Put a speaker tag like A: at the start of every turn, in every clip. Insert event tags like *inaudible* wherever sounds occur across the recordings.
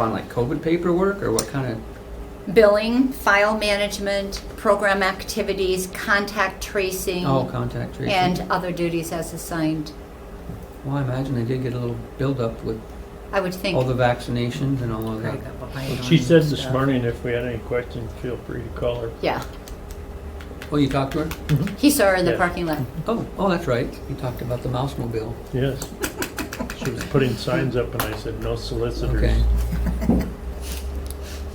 A: on like COVID paperwork or what kind
B: Mm-hmm.
A: of?
B: Billing, file management, program activities, contact tracing,
A: Oh, contact tracing.
B: and other duties as assigned.
A: Well, I imagine they did get a little buildup with
B: I would think.
A: all the vaccinations and all of that.
B: Craig got behind
C: She
B: on
C: said this
B: stuff.
C: morning if we had any questions, feel free to call her.
B: Yeah,
A: Oh, you talked to her?
B: he saw her in the
C: Yeah.
B: parking lot.
A: Oh, oh, that's right. You talked about the mouse mobile.
C: Yes. She was putting signs up and I said, no solicitors.
A: Okay.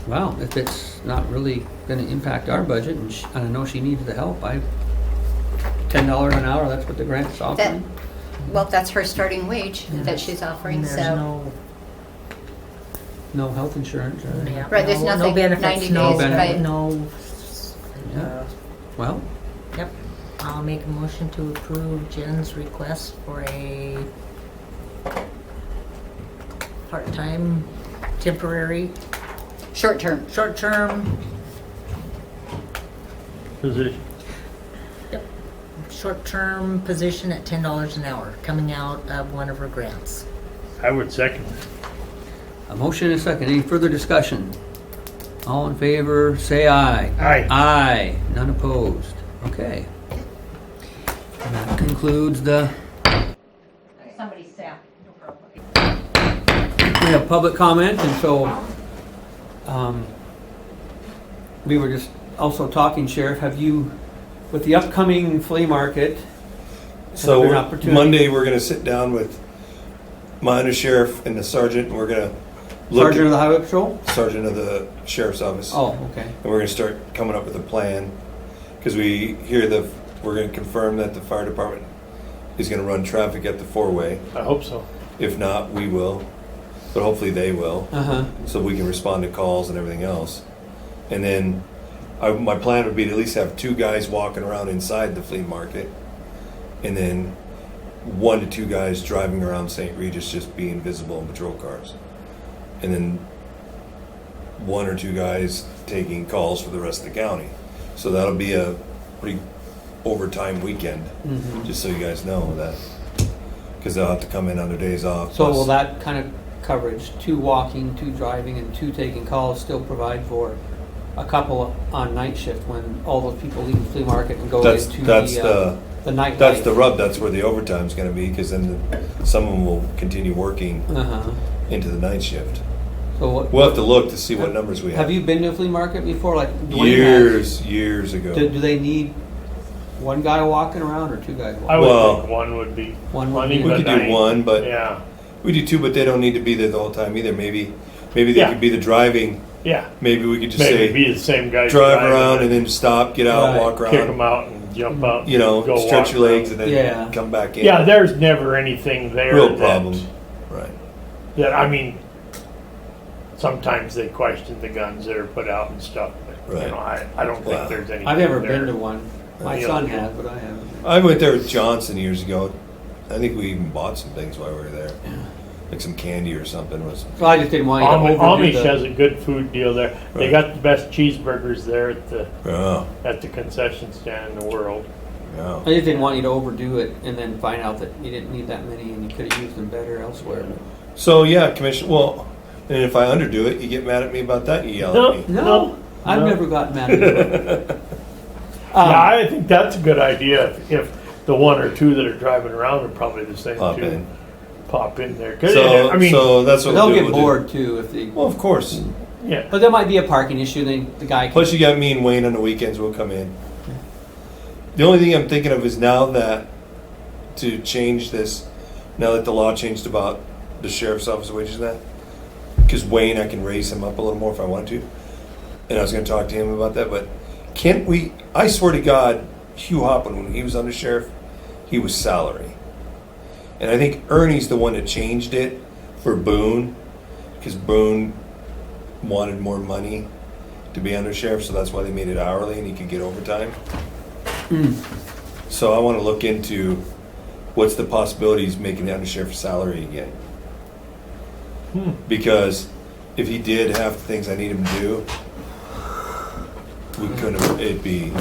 A: Wow, if it's not really gonna impact our budget, and she- and I know she needed the help, I, ten dollars an hour, that's what the grant's
B: That,
A: offering.
B: well, that's her starting wage that she's offering,
D: And there's
B: so.
D: no-
A: No health insurance or anything.
D: yeah,
B: Right, there's
D: no- no
B: nothing,
D: benefits,
B: 90
D: no-
A: days, right.
D: No,
A: Yeah.
D: uh,
A: Well,
D: yep. I'll make a motion to approve Jen's request for a part-time, temporary,
B: Short term,
D: short-term,
C: Position,
D: short-term position at ten dollars an hour, coming out of one of her grants.
C: I would second.
A: a motion and a second. Any further discussion? All in favor, say aye.
C: Aye.
A: Aye. None opposed. Okay. And that concludes the,
D: Somebody sat.
A: we have public comment, and so, um, we were just also talking, Sheriff, have you, with the upcoming flea market,
E: So
A: An
E: we're-
A: opportunity.
E: Monday, we're gonna sit down with my undersheriff and the sergeant, and we're gonna look
A: Sergeant of the
E: at
A: Highway Patrol?
E: sergeant of the sheriff's office.
A: Oh, okay.
E: And we're gonna start coming up with a plan, because we hear the, we're gonna confirm that the fire department is gonna run traffic at the four-way.
C: I hope so.
E: If not, we will, but hopefully they will,
A: Uh-huh.
E: so we can respond to calls and everything else. And then, I, my plan would be to at least have two guys walking around inside the flea market, and then one to two guys driving around St. Regis just being visible in patrol cars. And then one or two guys taking calls for the rest of the county. So that'll be a pretty overtime weekend,
A: Mm-hmm.
E: just so you guys know that. Because they'll have to come in on their days off.
A: So will
E: plus-
A: that kind of coverage, two walking, two driving, and two taking calls, still provide for a couple on night shift when all those people leave the flea market and go
E: That's-
A: into
E: that's
A: the, uh,
E: the-
A: the night
E: That's the rub. That's where the overtime's going to be because then some of them will continue working
A: Uh-huh.
E: into the night shift.
A: So what,
E: We'll have to look to see what numbers we have.
A: have you been to a flea market before? Like Dwayne has.
E: years, years ago?
A: Do, do they need one guy walking around or two guys? Walking?
C: I would
E: Well,
C: think one would be
A: One would be-
C: plenty,
E: we
C: but
E: could
C: I.
E: do one, but
C: Yeah,
E: we do two, but they don't need to be there the whole time either. Maybe, maybe they
C: Yeah.
E: could be the driving.
C: yeah.
E: Maybe we could just
C: Maybe
E: say
C: be the same guy.
E: drive around and then stop, get out,
A: Right.
E: walk around,
C: Kick them out and jump
A: Mm-hmm.
C: out.
E: you know,
C: and go
E: stretch
C: walk
E: your legs,
C: around.
E: and then
A: Yeah.
E: come back in.
C: Yeah, there's never anything there.
E: real
C: that-
E: problem, right?
C: That, I mean, sometimes they question the guns that are put out and stuff, but, you
E: Right.
C: know, I, I don't
E: Wow.
C: think there's anything
A: I've never
C: there.
A: been to one. My
C: Yeah.
A: son has, but I haven't.
E: I went there with Johnson years ago. I think we even bought some things while we were there, like some candy or something. Was
A: Well, I just didn't want you to
C: Am-
A: overdo
C: Amish
A: the-
C: has a good food deal there. They
E: Right.
C: got the best cheeseburgers there at the
E: oh,
C: at the concession stand in the world.
E: yeah.
A: I just didn't want you to overdo it and then find out that you didn't need that many and you could have used them better elsewhere.
E: So yeah, commission. Well, and if I underdo it, you get mad at me about that. You yell at me.
A: No,
C: No,
A: I've
C: no.
A: never gotten
C: *laughs*
A: mad at you. Um,
C: yeah, I think that's a good idea. If, if the one or two that are driving around are probably the same
E: Pop
C: two,
E: in.
C: pop in there. 'Cause,
E: So,
C: I mean,
E: so that's what
A: they'll
E: we'll do,
A: get
E: we'll do.
A: bored too if they.
E: Well, of course.
C: yeah,
A: But there might be a parking issue. Then the guy. Can,
E: Plus, you got me and Wayne on the weekends. We'll come in. The only thing I'm thinking of is now that to change this, now that the law changed about the sheriff's office wages and that, because Wayne, I can raise him up a little more if I want to, and I was going to talk to him about that. But can't we? I swear to God, Hugh Hoppin, when he was under sheriff, he was salary, and I think Ernie's the one that changed it for Boone, because Boone wanted more money to be under sheriff, so that's why they made it hourly and he could get overtime.
A: Hmm.
E: So I want to look into what's the possibilities of making the under sheriff's salary again.
A: Hmm.
E: Because if he did half the things I need him to do, we couldn't, have- it'd be,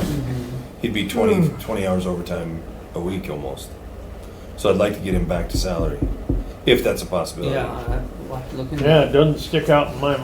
E: he'd be 20,
A: Hmm.
E: 20 hours overtime a week almost. So I'd like to get him back to salary, if that's a possibility.
A: yeah, I- We'll have to look into that.
C: Yeah, it doesn't stick out in my mind.